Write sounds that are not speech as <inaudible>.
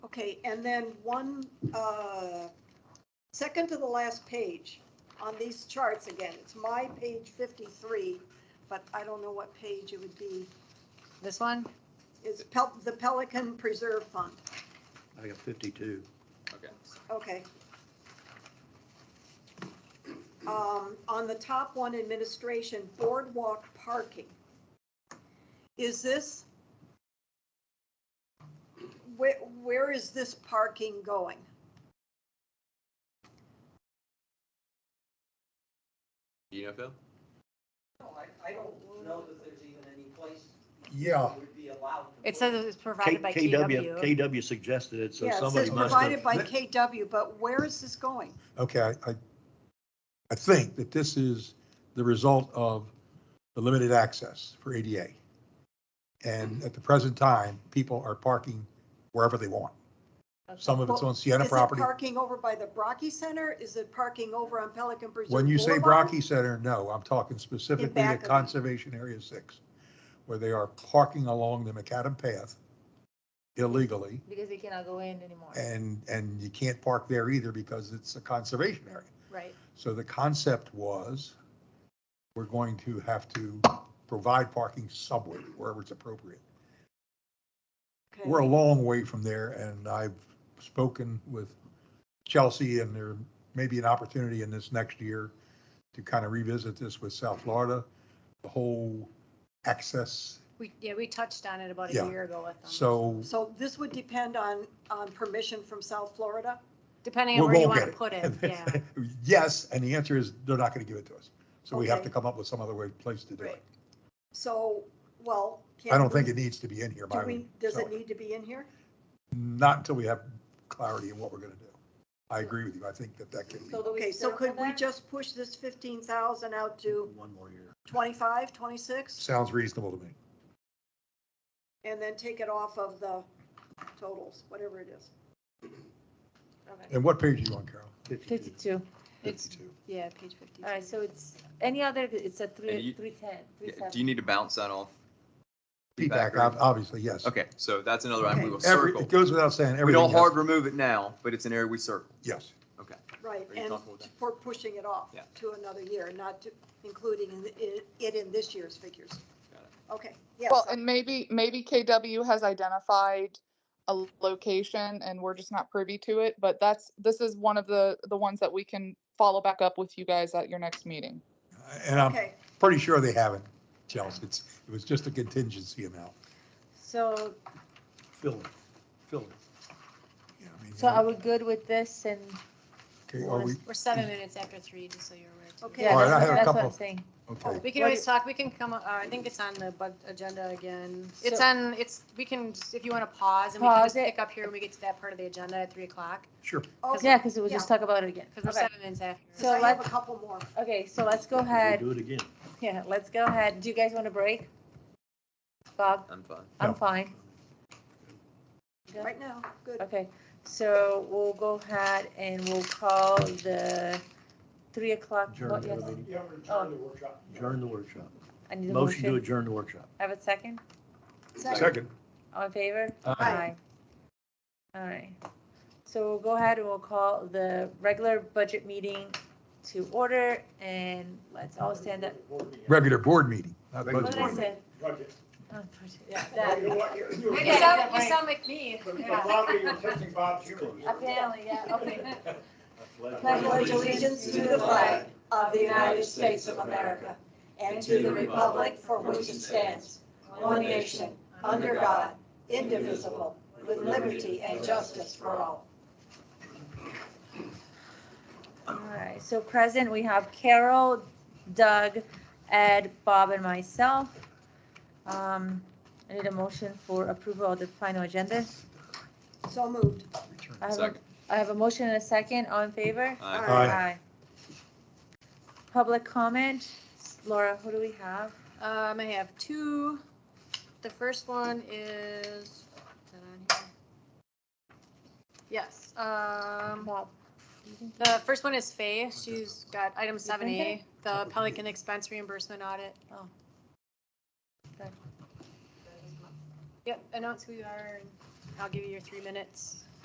Okay, and then one, uh, second to the last page on these charts again, it's my page 53, but I don't know what page it would be, This one? is Pel- the Pelican Preserve Fund. I got fifty-two. Okay. Okay. Um, on the top one, administration, boardwalk parking. Is this? Where, where is this parking going? Do you know, Phil? No, I, I don't know that there's even any place Yeah, that would be allowed. to It put says it's provided by KW, KW. KW suggested it, so Yeah, it says somebody must provided have. by KW, but where is this going? okay, I- I, I think that this is the result of the limited access for ADA. Mm-hmm. And at the present time, people are parking wherever they want. Some of it's on Sienna Is it property. parking over by the Brocky Center? Is it parking over on Pelican Preserve? When you say Boulevard? Brocky Center, no, I'm talking specifically to back of it. Conservation Area Six, where they are parking along the macadam Path illegally. Because they cannot go in anymore, And, and you can't park there either because it's a conservation area. right? So the concept was, we're going to have to provide parking somewhere, wherever it's appropriate. Okay. We're a long way from there, and I've spoken with Chelsea, and there may be an opportunity in this next year to kind of revisit this with South Florida, the whole access. We, yeah, we touched on it about a Yeah. year ago with them. So So this would depend on, on permission from South Florida? Depending we on where you won't want to get put it, <laughs> yeah. it. Yes, and the answer is, they're not going to give it to us. So we have Okay. to come up with some other way, place to do it. So, well. I can don't think we- it needs to be in here, Do by the we, way. does it need to be in here? Not until we have clarity in what we're gonna do. I agree with you. I think that that can be, So do we Okay, so circle could we that? just push this fifteen thousand out to One more year. 25, 26, sounds reasonable to me. and then take it off of the totals, whatever it is? Okay. And what page are you on, Carol? Fifty-two. It's- Fifty-two. Yeah, page 50. All right, so it's, any other, it's a And you- three, three-ten, Yeah, three-seven. Do you need to bounce that off? Feedback, ob- obviously, yes. Okay, so that's another item we will Every, circle. it goes without saying, We everything, don't hard yes. remove it now, but it's an area we circle. Yes. Right, Are you and comfortable with that? for pushing it off Yeah. to another year, not to- including in the- i- it in this year's figures. Got it. Okay, yes, Well, and maybe, maybe KW has identified a location and we're just not privy to it, but that's, this is one of the, the ones that we can follow back up with you guys at your next meeting. And I'm okay. pretty sure they haven't, Chelsea. It's, it was just a contingency amount. So, Fill it, fill it. Yeah, I mean, So are we good with this and? Okay, are we, we're seven minutes after three, just so you're aware. too. Okay. yeah, All right, I that's have a what- that's what couple. I'm saying. okay. We can always talk, we can come, uh, I think it's on the bu- agenda again. It's So- on, it's, we can, just- if you want to pause and we can Pause just it. pick up here when we get to that part of the agenda at 3 o'clock. Sure. Okay, Yeah, because we'll just talk about it again. Because we're Okay. seven minutes after. So I So have a let's- couple more. Okay, so let's go ahead. Do it again. Yeah, let's go ahead. Do you guys want a break? Bob, I'm fine. I'm No. fine. Yeah. Right now, good. Okay, so we'll go ahead and we'll call the three o'clock. Adjourn what, the yes? meeting. Oh, Adjourn the workshop. I need a Motion to motion. adjourn the workshop. Have a second? Second. All in favor? Aye. All right. So we'll go ahead and we'll call the regular budget meeting to order and let's all stand up. Regular board meeting. not Regular What budget did I board meeting. say? Oh, yeah, that. You sound, you sound like me. Apparently, yeah, okay. pledge allegiance to the flag of the United States of America and to the republic for which it stands, one nation, under God, indivisible, with liberty and justice for all. All right, so present, we have Carol, Doug, Ed, Bob, and myself. Um, I need a motion for approval of the final agenda. So moved. I have a, Second. I have a motion and a second, all in favor? Aye. Aye. Public comment, Laura, who do we have? <laughs> Um, I have two. The first one is, is that on here? Yes, um, Bob. the first one is Faye. She's got item seven A, the Pelican expense reimbursement audit. Oh. Yep, announce who you are and I'll give you your three minutes.